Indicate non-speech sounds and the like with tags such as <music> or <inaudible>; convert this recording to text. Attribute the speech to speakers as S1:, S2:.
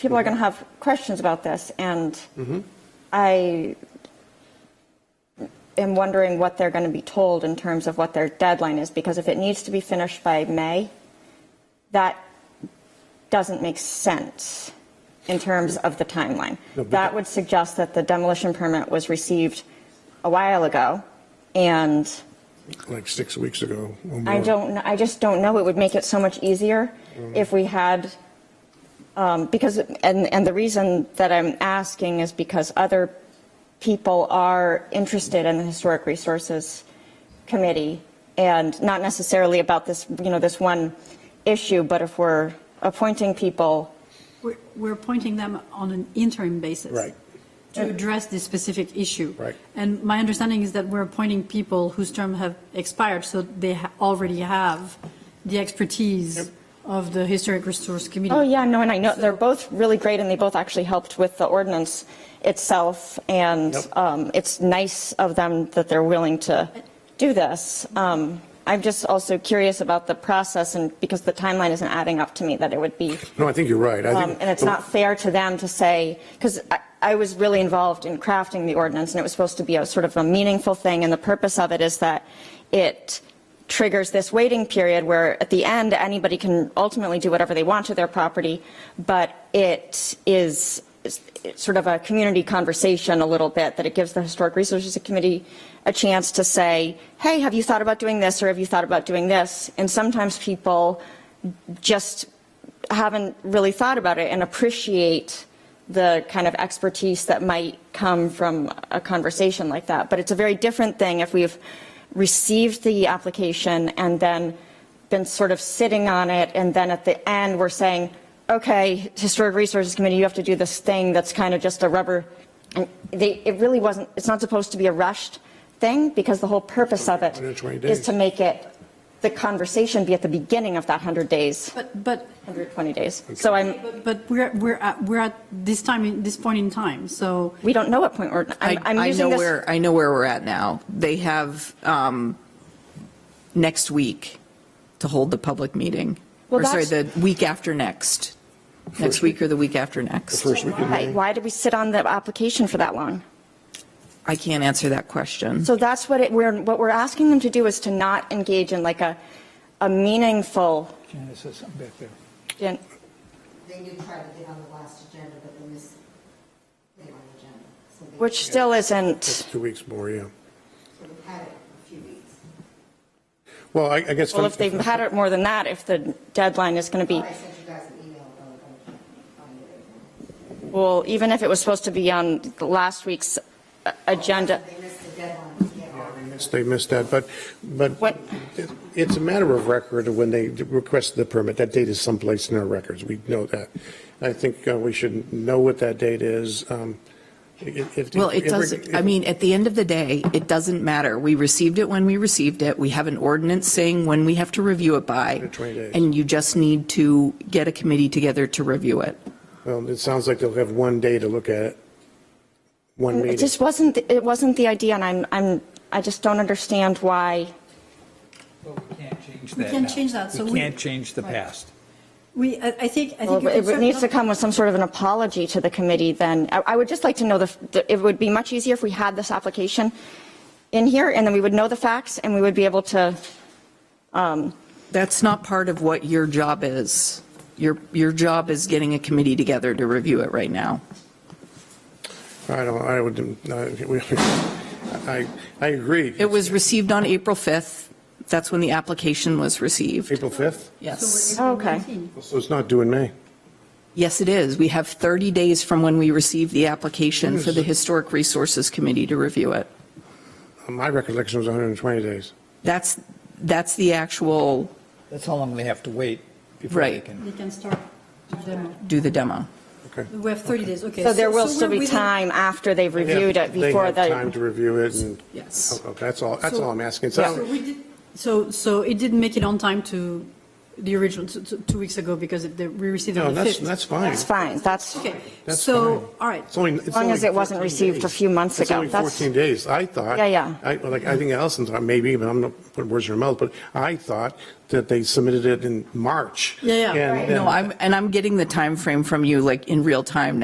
S1: people are going to have questions about this, and
S2: Mm-hmm.
S1: I am wondering what they're going to be told in terms of what their deadline is, because if it needs to be finished by May, that doesn't make sense in terms of the timeline.
S2: No, but-
S1: That would suggest that the demolition permit was received a while ago, and
S2: like six weeks ago. or
S1: I
S2: more.
S1: don't, kn- I just don't know. It would make it so much easier if we had, um, because, and, and the reason that I'm asking is because other people are interested in the Historic Resources Committee and not necessarily about this, you know, this one issue, but if we're appointing people,
S3: We're, we're appointing them on an interim basis.
S2: Right.
S3: To address this specific issue.
S2: Right.
S3: And my understanding is that we're appointing people whose term have expired, so they ha- already have the expertise of the Historic Resource Committee.
S1: oh yeah, no, and I know, they're both really great and they both actually helped with the ordinance itself. And
S2: Yep.
S1: um, it's nice of them that they're willing to do this. Um, I'm just also curious about the process and because the timeline isn't adding up to me that it would be,
S2: No, I think you're right. I
S1: um,
S2: think.
S1: and it's not fair to them to say, because I, I was really involved in crafting the ordinance and it was supposed to be a sort of a meaningful thing. And the purpose of it is that it triggers this waiting period where at the end, anybody can ultimately do whatever they want to their property. But it is is sort of a community conversation a little bit, that it gives the Historic Resources Committee a chance to say, hey, have you thought about doing this or have you thought about doing this? And sometimes people just haven't really thought about it and appreciate the kind of expertise that might come from a conversation like that. But it's a very different thing if we've received the application and then been sort of sitting on it, and then at the end, we're saying, okay, Historic Resources Committee, you have to do this thing that's kind of just a rubber. And they, it really wasn't, it's not supposed to be a rushed thing, because the whole purpose of it
S2: 120 days.
S1: is to make it, the conversation be at the beginning of that 100 days,
S3: But, but
S1: 120 days. So I'm,
S3: But- But we're, we're at, we're at this time, in- this point in time, so
S1: we don't know what point we're, I'm,
S4: I,
S1: I'm
S4: I know
S1: using this.
S4: where I know where we're at now. They have um, next week to hold the public meeting.
S1: Well,
S4: or sorry, the
S1: that's-
S4: week after next, next week or the week after next.
S2: First week in
S1: Why,
S2: May.
S1: why did we sit on the application for that long?
S4: I can't answer that question.
S1: So that's what it, we're, what we're asking them to do is to not engage in like a, a meaningful,
S5: Janice says something back there.
S1: and
S6: They did try to get on the last agenda, but they missed, they were on the agenda. So they-
S1: which still isn't,
S2: Two weeks more, yeah.
S6: So we've had it a few weeks.
S2: Well, I, I guess.
S1: well, if they've had it more than that, if the deadline is going to be,
S6: I sent you guys an email, though, but I can't find it anymore.
S1: well, even if it was supposed to be on the last week's uh, agenda,
S6: They missed the deadline to get on.
S2: They missed that, but, but
S1: What-
S2: it- it's a matter of record of when they requested the permit. That date is someplace in our records. We know that. I think uh, we should know what that date is. Um, if- if-
S4: Well, it
S2: if-
S4: doesn't, I mean, at the end of the day, it doesn't matter. We received it when we received it. We have an ordinance saying when we have to review it by.
S2: 20 days.
S4: And you just need to get a committee together to review it.
S2: Well, it sounds like they'll have one day to look at it. One
S1: it
S2: meeting.
S1: just wasn't, it wasn't the idea and I'm, I'm, I just don't understand why.
S5: But we can't change that
S3: We can't
S5: now.
S3: change that, so
S5: We
S3: we-
S5: can't change the
S3: Right.
S5: past.
S3: we, I I think, I think.
S1: Well,
S3: your
S1: It
S3: concern-
S1: needs to come with some sort of an apology to the committee then. I I would just like to know the, the- it would be much easier if we had this application in here and then we would know the facts and we would be able to,
S4: That's not part of what your job is. Your, your job is getting a committee together to review it right now.
S2: I don't, I would, uh, we- <laughs> I, I agree.
S4: It was received on April 5th. That's when the application was received.
S2: April 5th?
S4: Yes.
S3: So we're
S1: Okay.
S3: 19.
S2: So it's not due in May.
S4: Yes, it is. We have 30 days from when we received the application for the Historic Resources Committee to review it.
S2: My recollection was 120 days.
S4: That's, that's the actual,
S5: That's how long they have to wait before they
S4: Right.
S5: can.
S3: They can start the demo.
S4: do the demo.
S2: Okay.
S3: We have 30 days, okay.
S1: so there will
S3: so
S1: still
S3: we're
S1: be
S3: within-
S1: time after they've reviewed it
S2: They
S1: before
S2: have Time
S1: the,
S2: to review it and.
S4: Yes.
S2: Okay, That's all, that's
S3: So-
S2: all I'm asking. It's
S3: Yeah,
S2: not-
S3: So we did, so, so it didn't make it on time to, the original, t- t- two weeks ago, because it- they- we received it
S2: No,
S3: on the
S2: that's,
S3: 5th.
S2: that's fine.
S1: That's fine, that's,
S3: Okay,
S2: That's fine.
S3: so, all right.
S2: It's only- it's
S1: long
S2: only
S1: as it wasn't
S2: 14
S1: received a
S2: days.
S1: few months ago.
S2: It's only
S1: That's-
S2: 14 days, I thought.
S1: Yeah, yeah.
S2: I, like, I think Allison thought, maybe, but I'm not putting words in her mouth, but I thought that they submitted it in March.
S3: Yeah, yeah.
S2: And
S3: Right.
S2: then-
S4: No, I'm, and I'm getting the time frame from you, like, in real time